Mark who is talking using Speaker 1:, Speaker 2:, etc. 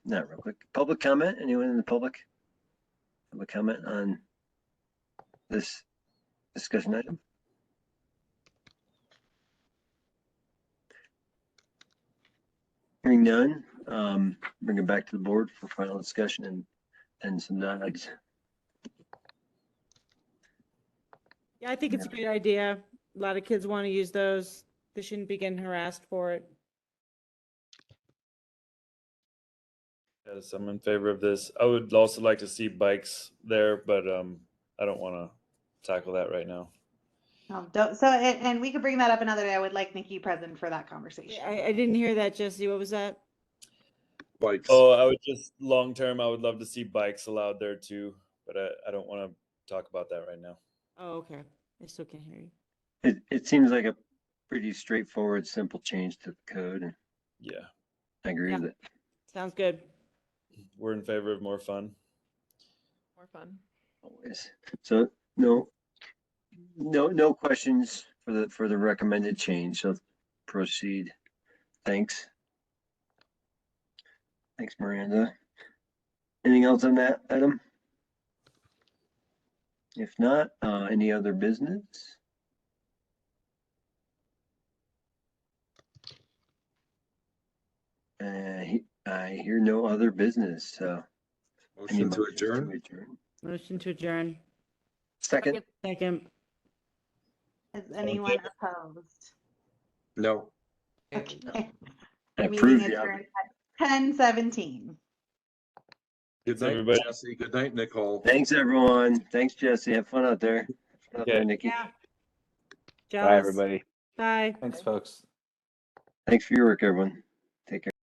Speaker 1: not real quick. Public comment? Anyone in the public? Public comment on this discussion item? Hearing none, um, bring it back to the board for final discussion and, and some nods.
Speaker 2: Yeah, I think it's a great idea. A lot of kids want to use those. They shouldn't be getting harassed for it.
Speaker 3: Yes, I'm in favor of this. I would also like to see bikes there, but um, I don't want to tackle that right now.
Speaker 4: No, don't, Um, so, and, and we could bring that up another day. I would like Nikki present for that conversation.
Speaker 2: I, I didn't hear that, Jesse. What was that?
Speaker 5: bikes.
Speaker 3: Oh, I would just long term. I would love to see bikes allowed there too, but I, I don't want to talk about that right now.
Speaker 2: Oh, okay. I still can't hear you.
Speaker 1: It, it seems like a pretty straightforward, simple change to the code. and
Speaker 3: Yeah,
Speaker 1: I agree with it.
Speaker 2: Sounds good.
Speaker 3: we're in favor of more fun.
Speaker 6: More fun.
Speaker 1: Always. So no, no, no questions for the, for the recommended change. So proceed. Thanks. Thanks, Miranda. Anything else on that item? If not, uh, any other business? Uh, he- I hear no other business, so. any
Speaker 5: Motion to
Speaker 1: motions
Speaker 5: adjourn?
Speaker 2: Motion to adjourn.
Speaker 1: Second.
Speaker 2: Second.
Speaker 4: Is anyone opposed?
Speaker 5: No.
Speaker 4: Okay.
Speaker 1: I approve
Speaker 4: Meeting
Speaker 1: the
Speaker 4: adjourned at ten seventeen.
Speaker 5: Good night,
Speaker 3: Everybody-
Speaker 5: Jesse. Good night, Nicole.
Speaker 1: Thanks, everyone. Thanks, Jesse. Have fun out there. Have fun out there,
Speaker 3: Okay.
Speaker 1: Nikki.
Speaker 2: Bye, everybody. Bye.
Speaker 7: Thanks, folks.
Speaker 1: Thanks for your work, everyone. Take care.